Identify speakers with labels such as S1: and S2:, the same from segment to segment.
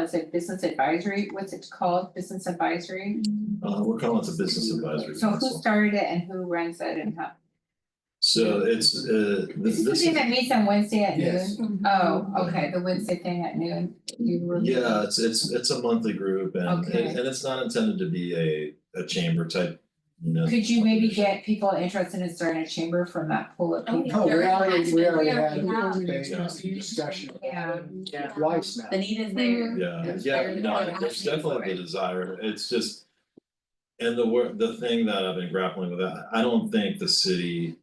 S1: was it business advisory, what's it called, business advisory?
S2: Uh, we're calling it the Business Advisory
S1: So who
S2: Council.
S1: started it and who runs it and how?
S2: So it's, uh,
S1: Is
S2: this,
S1: this the
S2: this,
S1: thing that meets on Wednesday at
S3: Yes.
S1: noon? Oh, okay, the Wednesday thing at noon, you were.
S2: yeah, it's, it's, it's a monthly group and,
S1: Okay.
S2: and it's not intended to be a, a chamber type, you know.
S1: Could you maybe get people interested in starting a chamber from that pool of
S4: Oh,
S1: people?
S3: Oh, we already, we already
S4: We already
S3: had
S2: have.
S3: a discussion.
S1: Yeah.
S4: Yeah.
S3: Twice now.
S5: The need is there.
S2: Yeah,
S3: Yes.
S2: yeah,
S5: They're
S2: no,
S5: not
S2: there's
S5: asking for
S2: definitely
S5: it.
S2: the desire, it's just. And the wor- the thing that I've been grappling with, I I don't think the city.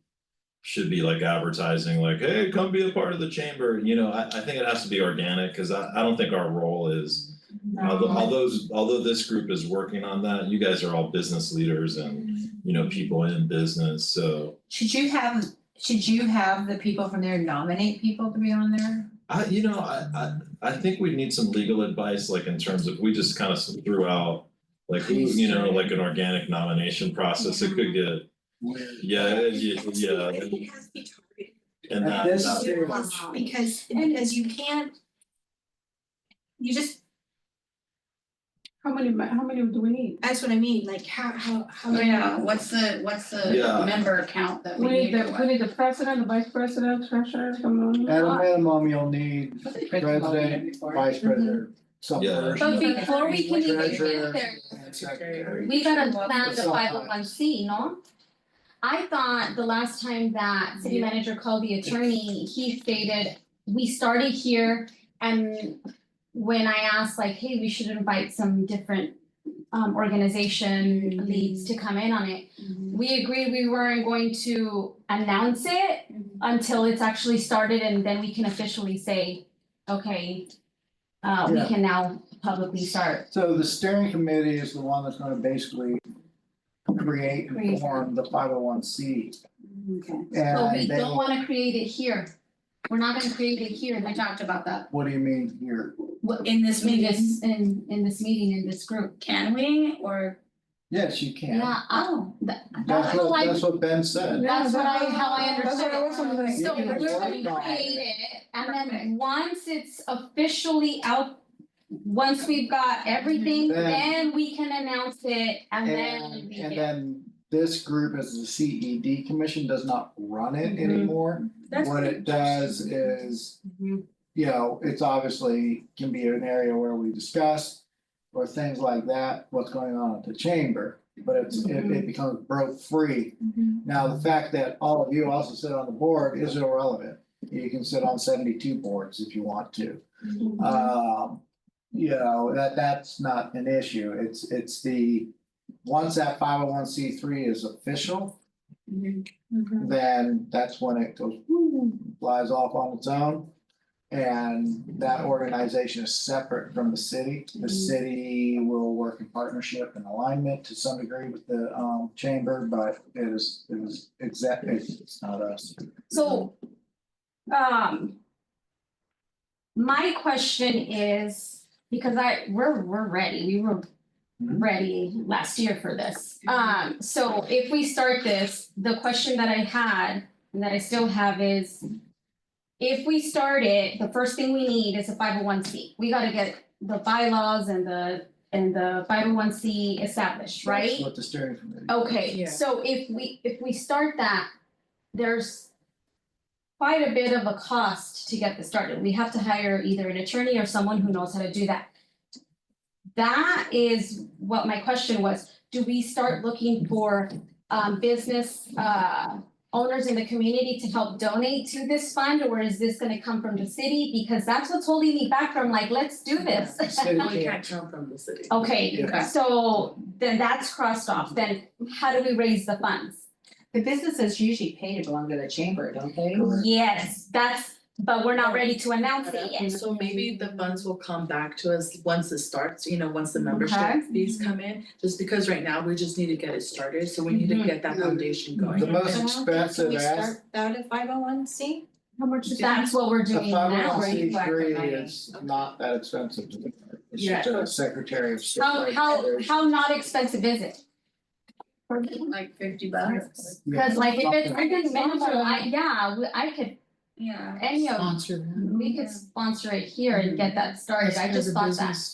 S2: Should be like advertising like, hey, come be a part of the chamber, you know, I I think it has to be organic, cause I I don't think our role is.
S3: Um,
S2: Although although although this group is working on that, you guys are all business leaders and, you know, people in business, so.
S1: Should you have, should you have the people from there nominate people to be on there?
S2: I, you know, I, I, I think we need some legal advice, like in terms of, we just kind of threw out. Like, who, you know, like an organic nomination process, it could get, yeah, yeah, yeah,
S6: I think it has to be targeted.
S2: and
S3: At
S2: that,
S3: this
S2: that-
S3: stage-
S6: Because, because you can't. You just,
S4: How many, ma- how many do we need?
S6: that's what I mean, like how, how, how.
S5: Oh, yeah, what's the, what's the
S2: Yeah.
S5: member count that
S4: We
S5: we
S4: need
S5: need?
S4: the, we need the president, the vice president, treasurer, someone.
S3: At
S1: Oh,
S3: a minimum, you'll need
S1: Was it Chris Paul we did
S3: president,
S1: before?
S3: vice president, some
S2: Yeah.
S3: person,
S7: Mm-hmm. But before we can even
S3: treasurer,
S7: get there,
S3: and secretary.
S7: we gotta plan the
S3: Sometimes.
S7: five oh one C, no? I thought the last time that city manager called the attorney, he stated, we started here and when I asked like, hey, we should invite some different um organization leads to come in on it. We agreed we weren't going to announce it until it's actually started and then we can officially say, okay, uh we
S3: Yeah.
S7: can now publicly start
S3: So the steering committee is the one that's gonna basically create and
S7: Create.
S3: form the five oh one C.
S5: Okay.
S7: But we
S3: And they,
S7: don't wanna create it here. We're not gonna create it here, we talked about that.
S3: what do you mean here?
S5: What, in this
S7: In
S5: meeting,
S7: this, in, in this meeting, in this group.
S5: can we, or,
S3: Yes, you can.
S7: Yeah, oh, that,
S3: That's
S7: that's
S3: what,
S7: like,
S3: that's what Ben said.
S7: that's what I, how I
S4: Yeah, that's
S7: understood
S4: what I
S7: it.
S4: was wondering.
S7: So
S3: You can
S7: we're
S3: work
S7: gonna
S3: on it.
S7: create it, and
S5: Perfect.
S7: then once it's officially out, once we've got everything,
S3: Then-
S7: then we can announce it and then
S3: And,
S7: we
S3: and
S7: can-
S3: then this group as the CED commission does not run it
S4: Mhm.
S7: Mm-hmm.
S3: anymore.
S6: That's
S3: What it does is,
S5: Mhm.
S3: you know, it's obviously can be an area where we discuss or things like that, what's going on at the chamber, but it's, it, it becomes broke free.
S7: Mm-hmm.
S3: Now, the fact that all of you also sit on the board is irrelevant. You can sit on seventy-two boards if you want to. Um, you know, that, that's not an issue. It's, it's the, once that five oh one C three is official,
S6: Mm-hmm.
S3: then that's when it goes, woo, flies off on its own. And that organization is separate from the city.
S7: Mm-hmm.
S3: The city will work in partnership and alignment to some degree with the, um, chamber, but it is, it is exactly, it's not us.
S7: So, um. My question is, because I, we're, we're ready, we were
S3: Mhm.
S7: ready last year for this. Um, so if we start this, the question that I had and that I still have is. If we start it, the first thing we need is a five oh one C. We gotta get the bylaws and the, and the five oh one C established, right? Oh,
S3: That's what the steering committee.
S7: Okay,
S4: Yeah.
S7: so if we, if we start that, there's quite a bit of a cost to get this started. We have to hire either an attorney or someone who knows how to do that. That is what my question was. Do we start looking for um business uh owners in the community to help donate to this fund? Or is this gonna come from the city? Because that's what's holding me back from like, let's do this.
S3: The city
S4: We
S3: can't
S4: can't come from the city.
S7: Okay,
S3: Yeah.
S7: so then that's crossed off. Then how do we raise the funds?
S1: The businesses usually pay to belong to the chamber, don't they?
S3: Correct.
S7: Yes, that's, but we're not ready to announce it yet.
S4: So maybe the funds will come back to us once it starts, you know, once the membership
S7: Okay.
S4: fees come in, just because right now we just need to get it started, so we need to
S7: Mhm.
S4: get that foundation going.
S3: The most
S6: Can
S3: expensive
S6: we
S3: as,
S6: start out at five oh one C?
S7: How much is That's what we're
S3: the
S7: doing
S3: five oh
S7: now,
S3: one
S7: where
S3: C
S7: you collect
S3: three
S7: the money.
S3: is not that expensive. to do. It's
S4: Yeah.
S3: just a Secretary of State.
S7: How,
S3: right
S7: how,
S3: there.
S7: how not expensive is it?
S5: like fifty bucks?
S3: Yeah.
S7: Cause like if it's, if it's minimal,
S5: Sponsor.
S7: I, yeah, we- I could,
S5: Yeah.
S7: any of,
S4: Sponsor
S7: we could sponsor it here and get that started. I just thought that.